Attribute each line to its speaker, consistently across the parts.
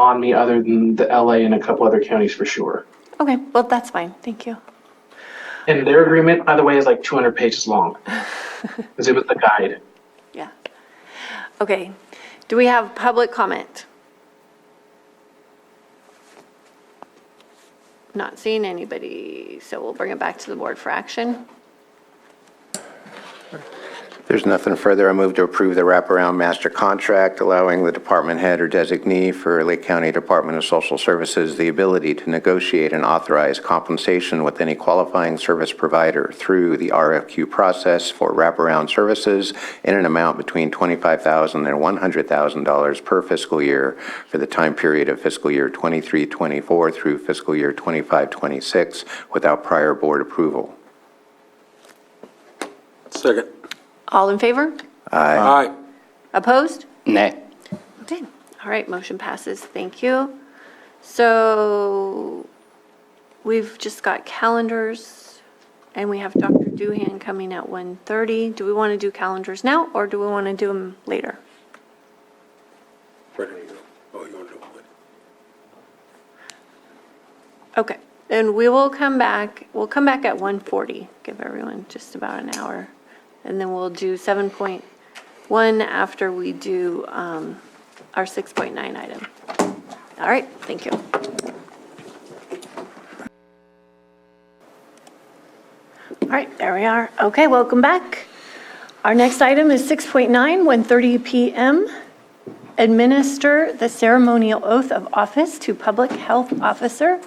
Speaker 1: on me other than the LA and a couple other counties for sure.
Speaker 2: Okay, well, that's fine. Thank you.
Speaker 1: And their agreement, by the way, is like 200 pages long because it was the guide.
Speaker 2: Yeah. Okay. Do we have public comment? Not seeing anybody, so we'll bring it back to the board for action.
Speaker 3: There's nothing further. I move to approve the wraparound master contract allowing the department head or designee for Lake County Department of Social Services the ability to negotiate and authorize compensation with any qualifying service provider through the RFQ process for wraparound services in an amount between $25,000 and $100,000 per fiscal year for the time period of fiscal year 23-24 through fiscal year 25-26 without prior board approval.
Speaker 4: Second.
Speaker 2: All in favor?
Speaker 4: Aye.
Speaker 2: Opposed?
Speaker 5: Nay.
Speaker 2: Okay. All right, motion passes. Thank you. So we've just got calendars and we have Dr. Doohan coming at 1:30. Do we want to do calendars now or do we want to do them later?
Speaker 4: Where did you go? Oh, you want to do it?
Speaker 2: Okay, and we will come back, we'll come back at 1:40, give everyone just about an hour. And then we'll do 7.1 after we do um, our 6.9 item. All right, thank you. All right, there we are. Okay, welcome back. Our next item is 6.9, 1:30 PM. Administer the ceremonial oath of office to Public Health Officer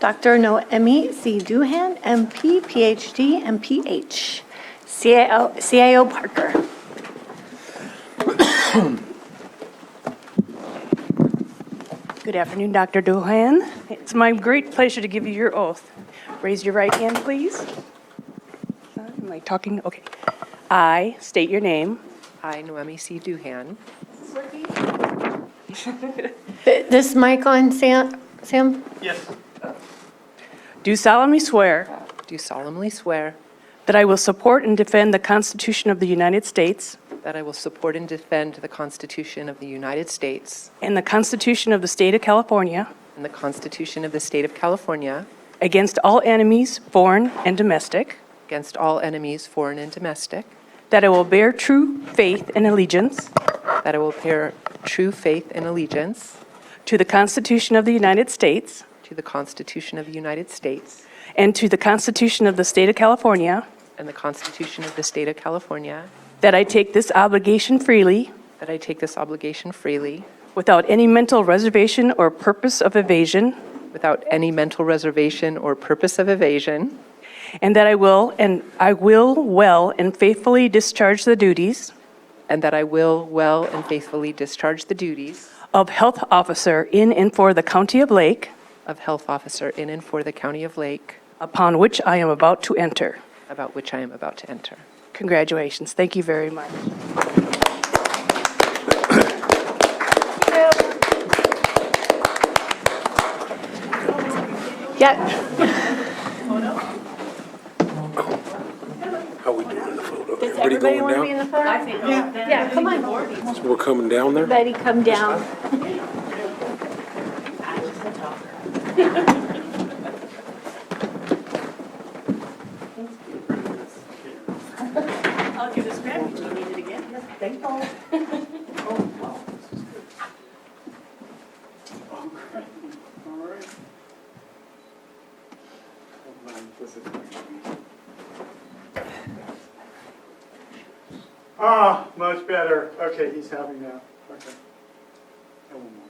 Speaker 2: Dr. Noemi C. Duhan, MP, PhD, and PH, CAO CAO Parker.
Speaker 6: Good afternoon, Dr. Dohan. It's my great pleasure to give you your oath. Raise your right hand, please. Am I talking? Okay. I state your name.
Speaker 7: I, Noemi C. Duhan.
Speaker 2: Th- This mic on, Sam? Sam?
Speaker 6: Do solemnly swear
Speaker 7: Do solemnly swear
Speaker 6: that I will support and defend the Constitution of the United States
Speaker 7: that I will support and defend the Constitution of the United States
Speaker 6: and the Constitution of the State of California
Speaker 7: and the Constitution of the State of California
Speaker 6: against all enemies, foreign and domestic,
Speaker 7: against all enemies, foreign and domestic,
Speaker 6: that I will bear true faith and allegiance
Speaker 7: that I will bear true faith and allegiance
Speaker 6: to the Constitution of the United States
Speaker 7: to the Constitution of the United States
Speaker 6: and to the Constitution of the State of California,
Speaker 7: and the Constitution of the State of California,
Speaker 6: that I take this obligation freely
Speaker 7: that I take this obligation freely
Speaker 6: Without any mental reservation or purpose of evasion.
Speaker 7: without any mental reservation or purpose of evasion,
Speaker 6: And that I will, and I will well and faithfully discharge the duties
Speaker 7: and that I will well and faithfully discharge the duties
Speaker 6: of health officer in and for the county of Lake,
Speaker 7: of health officer in and for the County of Lake,
Speaker 6: upon which I am about to enter.
Speaker 7: about which I am about to enter.
Speaker 6: Congratulations. Thank you very much.
Speaker 2: Yeah,
Speaker 4: How we doing in the photo?
Speaker 2: does
Speaker 4: Everybody
Speaker 2: everybody
Speaker 4: going
Speaker 2: want to be in
Speaker 4: down?
Speaker 2: the photo? I think. Yeah, come on,
Speaker 4: So We're coming down there?
Speaker 2: everybody come down.
Speaker 8: Ah, much better. Okay, he's happy now. Okay. And one more.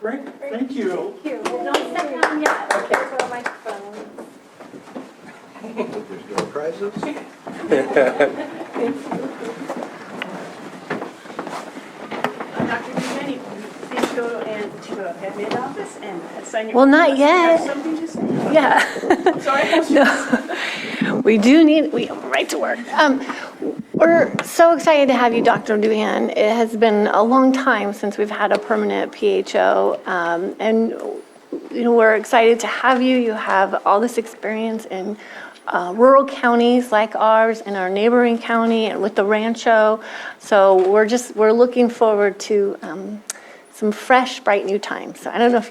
Speaker 8: Great, thank you.
Speaker 2: Don't sit down yet. Throw my phone.
Speaker 6: Dr. Dumaney, please go and to the admin office and sign your.
Speaker 2: Well, not yet.
Speaker 6: something to say?
Speaker 2: Yeah. No. We do need, we have a right to work. Um, We're so excited to have you, Dr. Duhan. It has been a long time since we've had a permanent PHO, um, and, you know, we're excited to have you. You have all this experience in uh, rural counties like ours, in our neighboring county, and with the Rancho. So we're just, we're looking forward to um, some fresh, bright new time. So I don't know if you